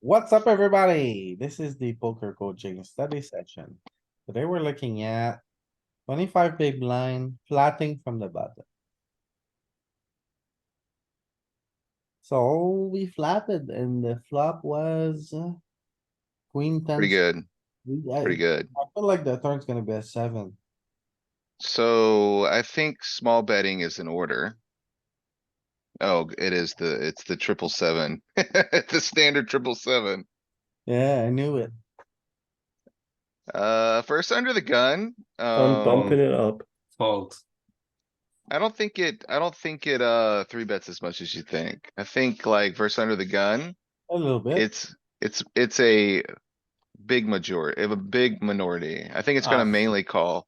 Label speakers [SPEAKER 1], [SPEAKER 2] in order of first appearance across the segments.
[SPEAKER 1] What's up, everybody? This is the poker coaching study session. Today we're looking at twenty-five big blind, flatting from the button. So we flatted and the flop was uh, queen ten.
[SPEAKER 2] Pretty good,
[SPEAKER 1] We- I-
[SPEAKER 2] pretty good.
[SPEAKER 1] I feel like the turn's gonna be a seven.
[SPEAKER 2] So I think small betting is in order. Oh, it is the, it's the triple seven, the standard triple seven.
[SPEAKER 1] Yeah, I knew it.
[SPEAKER 2] Uh, first under the gun,
[SPEAKER 3] I'm
[SPEAKER 2] um,
[SPEAKER 3] bumping it up.
[SPEAKER 4] Fold.
[SPEAKER 2] I don't think it, I don't think it, uh, three bets as much as you think. I think like first under the gun,
[SPEAKER 1] A little bit.
[SPEAKER 2] it's, it's, it's a big majority, a big minority. I think it's gonna
[SPEAKER 4] Ah.
[SPEAKER 2] mainly call.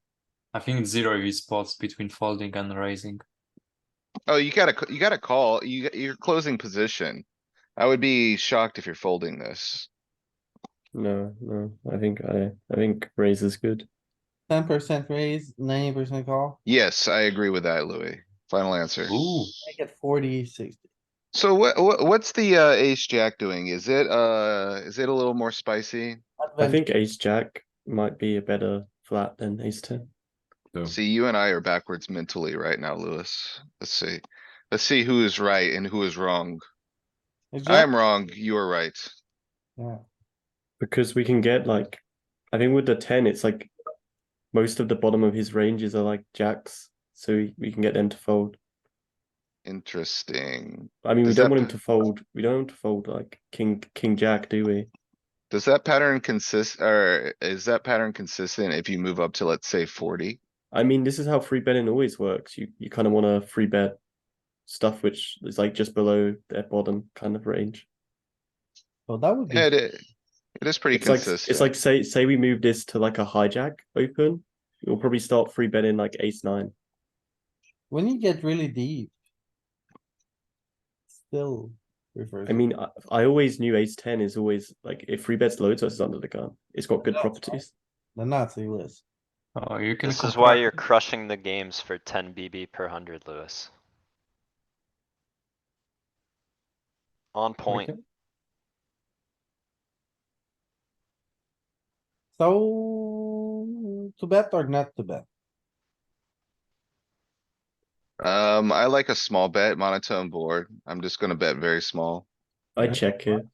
[SPEAKER 4] I think zero is spots between folding and raising.
[SPEAKER 2] Oh, you gotta, c- you gotta call, you, you're closing position. I would be shocked if you're folding this.
[SPEAKER 3] No, no, I think I, I think raise is good.
[SPEAKER 1] Ten percent raise, ninety percent call.
[SPEAKER 2] Yes, I agree with that, Louis. Final answer.
[SPEAKER 4] Ooh,
[SPEAKER 1] Make it forty, sixty.
[SPEAKER 2] So what, what, what's the, uh, ace jack doing? Is it, uh, is it a little more spicy?
[SPEAKER 3] I think ace jack might be a better flat than ace ten.
[SPEAKER 2] See, you and I are backwards mentally right now, Louis. Let's see. Let's see who is right and who is wrong. I'm wrong, you are right.
[SPEAKER 1] Yeah,
[SPEAKER 3] Because we can get like, I think with the ten, it's like most of the bottom of his ranges are like jacks, so we, we can get them to fold.
[SPEAKER 2] Interesting.
[SPEAKER 3] I mean, we
[SPEAKER 2] Does
[SPEAKER 3] don't
[SPEAKER 2] that-
[SPEAKER 3] want him to fold. We don't want him to fold like king king jack, do we?
[SPEAKER 2] Does that pattern consist, or is that pattern consistent if you move up to, let's say, forty?
[SPEAKER 3] I mean, this is how free betting always works. You you kind of want to free bet stuff which is like just below their bottom kind of range.
[SPEAKER 1] so that would be.
[SPEAKER 2] It, it it is pretty
[SPEAKER 3] it's like it's
[SPEAKER 2] consistent.
[SPEAKER 3] like say say we move this to like a hijack open, we'll probably start free betting like ace nine.
[SPEAKER 1] When you get really deep. Still refers.
[SPEAKER 3] I mean, I, I always knew ace ten is always like if free bets loads versus under the gun, it's got good
[SPEAKER 1] Yeah.
[SPEAKER 3] properties.
[SPEAKER 1] The Nazi list.
[SPEAKER 4] oh, you can.
[SPEAKER 5] This is why
[SPEAKER 4] compare-
[SPEAKER 5] you're crushing the games for ten BB per hundred, Lewis. On point.
[SPEAKER 3] Okay.
[SPEAKER 1] So to bet or not to bet?
[SPEAKER 2] Um, I like a small bet, monotone board. I'm just gonna bet very small.
[SPEAKER 3] I check it.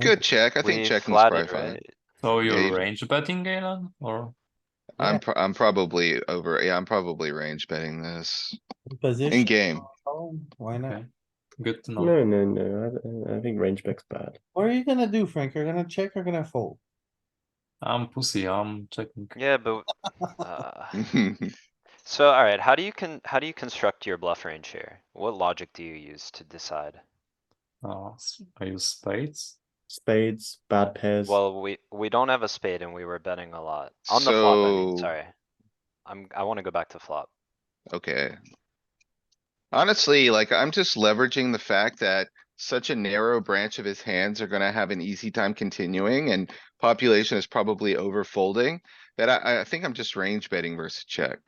[SPEAKER 2] Good check. I
[SPEAKER 5] We
[SPEAKER 2] think checking is probably
[SPEAKER 5] flatted,
[SPEAKER 2] fine.
[SPEAKER 5] right?
[SPEAKER 4] So
[SPEAKER 2] Yeah,
[SPEAKER 4] you're
[SPEAKER 2] you-
[SPEAKER 4] range betting, Galen, or?
[SPEAKER 1] Yeah.
[SPEAKER 2] I'm, pro- I'm probably over, yeah, I'm probably range betting this in
[SPEAKER 1] Position.
[SPEAKER 2] game.
[SPEAKER 1] Oh, Why not?
[SPEAKER 4] Okay. Good to know.
[SPEAKER 3] No, no, no. I, I think range bet's bad.
[SPEAKER 1] What are you gonna do, Frank? You're gonna check or gonna fold?
[SPEAKER 4] I'm pussy, I'm checking.
[SPEAKER 5] Yeah, but, uh, so alright, how do you can, how do you construct your bluff range here? What logic do you use to decide?
[SPEAKER 4] Uh, s- I use spades.
[SPEAKER 3] Spades, bad pairs.
[SPEAKER 5] Well, we, we don't have a spade and we were betting a lot. On the flop, I mean,
[SPEAKER 2] So-
[SPEAKER 5] sorry. I'm, I wanna go back to flop.
[SPEAKER 2] Okay. Honestly, like, I'm just leveraging the fact that such a narrow branch of his hands are gonna have an easy time continuing and population is probably over folding. That I, I think I'm just range betting versus check.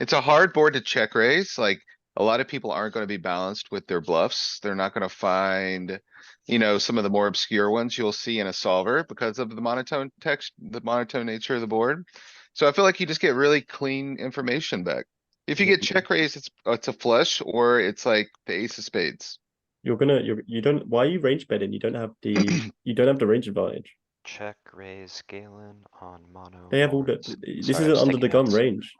[SPEAKER 2] It's a hard board to check raise, like, a lot of people aren't gonna be balanced with their bluffs. They're not gonna find. You know, some of the more obscure ones you'll see in a solver because of the monotone text, the monotone nature of the board. So I feel like you just get really clean information back. If you get check raised, it's, uh, it's a flush or it's like the ace of spades.
[SPEAKER 3] you're gonna you you don't why are you range betting? You don't have the you don't have the range advantage.
[SPEAKER 5] Check, raise, Galen on mono.
[SPEAKER 3] They have all the
[SPEAKER 5] boards.
[SPEAKER 3] this
[SPEAKER 5] Sorry,
[SPEAKER 3] is
[SPEAKER 5] I'm
[SPEAKER 3] an under
[SPEAKER 5] taking
[SPEAKER 3] the gun
[SPEAKER 5] notes.
[SPEAKER 3] range.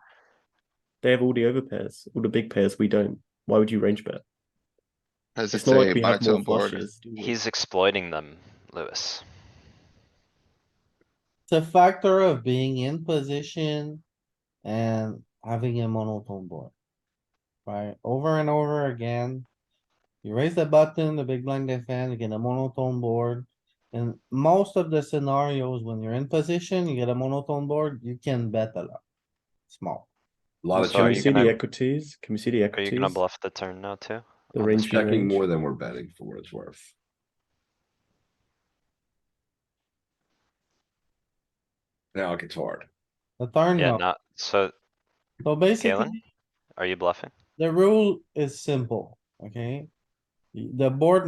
[SPEAKER 3] They have all the overpairs, all the big pairs. We don't. Why would you range bet?
[SPEAKER 2] As
[SPEAKER 3] It's
[SPEAKER 2] it's
[SPEAKER 3] not
[SPEAKER 2] a
[SPEAKER 3] like we have more
[SPEAKER 2] monotone board.
[SPEAKER 3] flushes. do we?
[SPEAKER 5] He's exploiting them, Lewis.
[SPEAKER 1] It's a factor of being in position and having a monotone board. Right, over and over again. You raise the button, the big blind defend, you get a monotone board. In most of the scenarios, when you're in position, you get a monotone board, you can bet a lot. Small.
[SPEAKER 6] Lot
[SPEAKER 5] I'm
[SPEAKER 6] of
[SPEAKER 3] Can we
[SPEAKER 5] sorry, you
[SPEAKER 3] see
[SPEAKER 6] checking,
[SPEAKER 5] gonna-
[SPEAKER 3] the equities? Can we see the
[SPEAKER 5] Are you
[SPEAKER 3] equities?
[SPEAKER 5] gonna bluff the turn now too?
[SPEAKER 3] The
[SPEAKER 5] on the
[SPEAKER 3] range
[SPEAKER 5] spectrum?
[SPEAKER 6] checking
[SPEAKER 3] range.
[SPEAKER 6] more than we're betting for what it's worth. Now it gets hard.
[SPEAKER 1] The turn,
[SPEAKER 5] Yeah,
[SPEAKER 1] no.
[SPEAKER 5] not, so
[SPEAKER 1] So
[SPEAKER 5] Galen?
[SPEAKER 1] basically,
[SPEAKER 5] Are you bluffing?
[SPEAKER 1] the rule is simple, okay? The board